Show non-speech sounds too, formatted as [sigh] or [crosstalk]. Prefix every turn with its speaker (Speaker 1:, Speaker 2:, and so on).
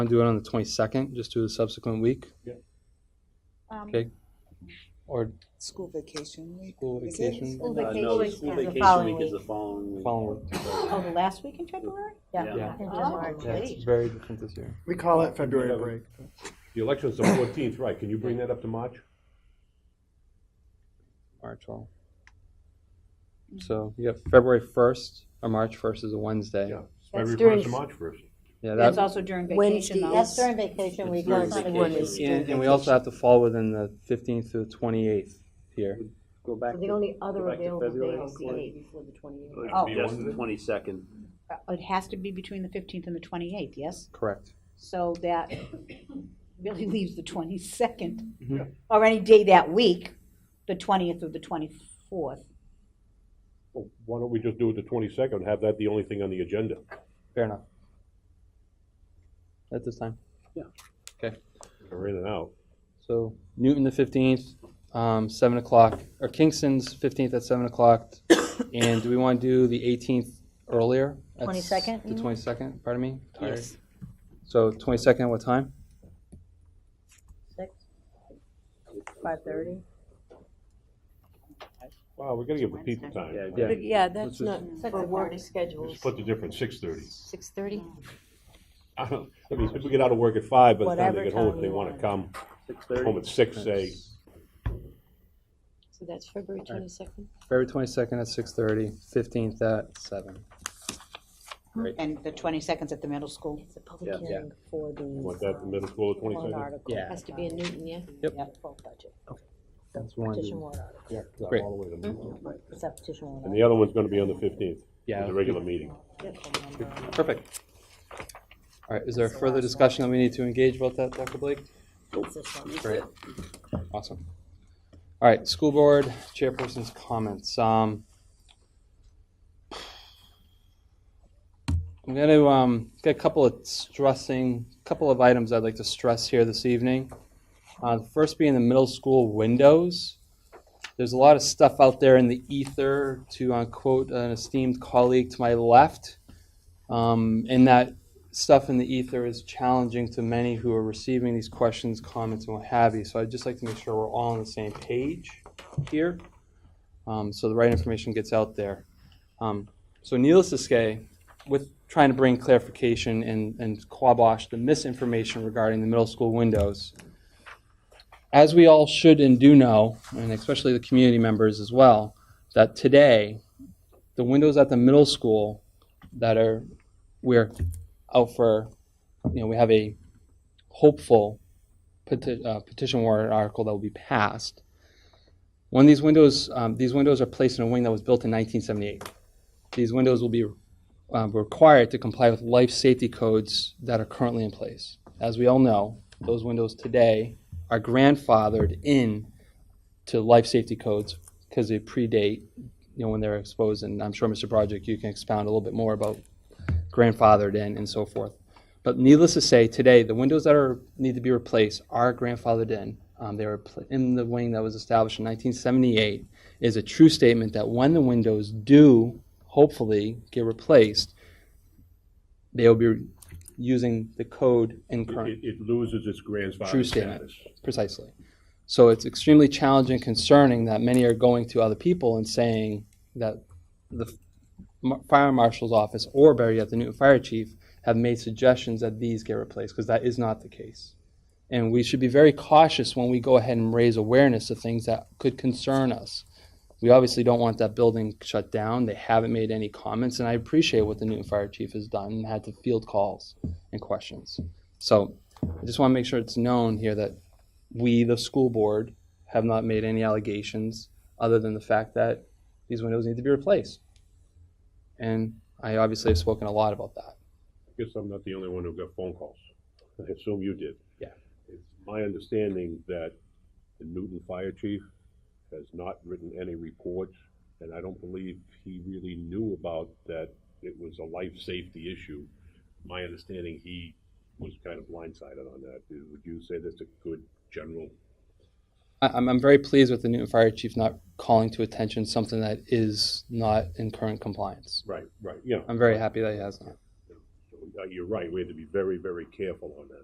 Speaker 1: Want to do it on the twenty-second, just do the subsequent week,
Speaker 2: Um,
Speaker 1: okay? Or
Speaker 3: School vacation week.
Speaker 1: school
Speaker 3: Is it?
Speaker 1: vacation,
Speaker 2: School
Speaker 4: Uh, no, the
Speaker 2: vacation
Speaker 4: school
Speaker 2: is the
Speaker 4: vacation
Speaker 2: following
Speaker 4: week is
Speaker 2: week.
Speaker 4: the following week.
Speaker 1: following,
Speaker 2: Oh, the last week in February?
Speaker 4: Yeah.
Speaker 1: Yeah.
Speaker 2: Into
Speaker 5: Oh,
Speaker 2: March.
Speaker 1: yeah, it's very different this year.
Speaker 6: We call it February break.
Speaker 7: The election's the fourteenth, right, can you bring that up to March?
Speaker 1: March twelfth. So you got February first or March first is a Wednesday.
Speaker 7: Yeah. February
Speaker 5: during-
Speaker 7: first and March first.
Speaker 1: Yeah,
Speaker 2: That's
Speaker 1: that,
Speaker 2: also during
Speaker 5: Wednesday.
Speaker 2: vacation though.
Speaker 5: That's during
Speaker 2: vacation
Speaker 4: It's week. during That's not vacation when it's-
Speaker 1: and, and we also have to fall within the fifteenth to the twenty-eighth here.
Speaker 4: Go back
Speaker 5: The
Speaker 4: to,
Speaker 5: only other
Speaker 4: Go back to
Speaker 5: available
Speaker 4: February.
Speaker 5: day is the eighth before the twenty-eighth.
Speaker 2: Oh.
Speaker 4: just the twenty-second.
Speaker 2: It has to be between the fifteenth and the twenty-eighth, yes?
Speaker 1: Correct.
Speaker 2: So that really [laughs] leaves the twenty-second,
Speaker 1: Mhm. Yeah.
Speaker 2: or any day that week, the twentieth or the twenty-fourth.
Speaker 7: Why don't we just do it the twenty-second, have that the only thing on the agenda?
Speaker 1: Fair enough. At this time.
Speaker 7: We're in and out.
Speaker 1: So Newton the fifteenth, um, seven o'clock, or Kingston's fifteenth at seven o'clock. [coughs] And do we want to do the eighteenth earlier? That's
Speaker 5: 22nd,
Speaker 1: The
Speaker 5: you
Speaker 1: twenty-second, pardon me? Yes. So twenty-second, what time?
Speaker 5: Six? Five-thirty?
Speaker 7: Wow, we gotta give the people time.
Speaker 4: Yeah,
Speaker 1: Yeah.
Speaker 4: yeah.
Speaker 5: Yeah,
Speaker 1: that's
Speaker 5: that's
Speaker 1: just-
Speaker 5: not, for work schedules.
Speaker 7: Just put the difference, six-thirty.
Speaker 5: Six-thirty?
Speaker 7: [laughs] I don't- I mean, people get out of work at five, by the time
Speaker 5: Whatever
Speaker 7: they get home,
Speaker 5: time
Speaker 7: if they
Speaker 5: you
Speaker 7: wanna
Speaker 5: want.
Speaker 7: come
Speaker 4: six thirty.
Speaker 7: home at six, say,
Speaker 5: So that's February twenty-second?
Speaker 1: February twenty-second at six-thirty, fifteenth at seven. Great.
Speaker 2: And the twenty-second's at the middle school.
Speaker 5: It's a public
Speaker 4: Yeah.
Speaker 5: hearing for the.
Speaker 7: want that in middle school, the
Speaker 5: Warrant
Speaker 7: twenty-second?
Speaker 5: article.
Speaker 1: Yeah.
Speaker 5: Has to be in Newton, yeah?
Speaker 1: Yep.
Speaker 5: Full budget.
Speaker 1: That's one.
Speaker 5: Petition warrant article.
Speaker 1: Great.
Speaker 5: It's that petition warrant
Speaker 7: And the other one's gonna be on the fifteenth,
Speaker 1: Yeah.
Speaker 7: the regular meeting.
Speaker 1: Perfect. All right, is there further discussion that we need to engage about that, Dr. Blake? Great. Awesome. All right, school board chairperson's comments. Um, I'm gonna, um, get a couple of stressing, couple of items I'd like to stress here this evening. Uh, the first being the middle school windows. There's a lot of stuff out there in the ether, to uh, quote an esteemed colleague to my left. Um, and that stuff in the ether is challenging to many who are receiving these questions, comments, and what have you. So I'd just like to make sure we're all on the same page here, um, so the right information gets out there. Um, so needless to say, with trying to bring clarification and, and quabosh the misinformation regarding the middle school windows, as we all should and do know, and especially the community members as well, that today, the windows at the middle school that are we're out for you know we have a hopeful peti- uh, petition warrant article that will be passed when these windows um, these windows are placed in a wing that was built in 1978 these windows will be um, required to comply with life safety codes that are currently in place as we all know those windows today are grandfathered in to life safety codes because they predate you know, when they're exposed, and I'm sure, Mr. Broderick, you can expound a little bit more about grandfathered in and so forth. But needless to say, today, the windows that are, need to be replaced are grandfathered in. Um, they were pl- in the wing that was established in 1978. It Is a true statement that when the windows do hopefully get replaced, they will be using the code in
Speaker 7: It,
Speaker 1: current.
Speaker 7: it- it loses its grandfather
Speaker 1: True statement.
Speaker 7: status.
Speaker 1: Precisely. So it's extremely challenging, and concerning that many are going to other people and saying that the f- ma- fire marshal's office or better yet, the Newton fire chief have made suggestions that these get replaced because that is not the case. And we should be very cautious when we go ahead and raise awareness of things that could concern us. We obviously don't want that building shut down. They haven't made any comments, and I appreciate what the Newton fire chief has done and had to field calls and questions. So I just want to make sure it's known here that we, the school board, have not made any allegations other than the fact that these windows need to be replaced. And I obviously have spoken a lot about that.
Speaker 7: Guess I'm not the only one who got phone calls. I assume you did.
Speaker 1: Yeah.
Speaker 7: It's my understanding that the Newton Fire Chief has not written any reports, and I don't believe he really knew about that it was a life safety issue. My understanding, he was kind of blindsided on that. Would you say that's a good general?
Speaker 1: I, I'm, I'm very pleased with the Newton Fire Chief not calling to attention something that is not in current compliance.
Speaker 7: Right, right, yeah.
Speaker 1: I'm very happy that he has not.
Speaker 7: So uh, you're right, we had to be very, very careful on that.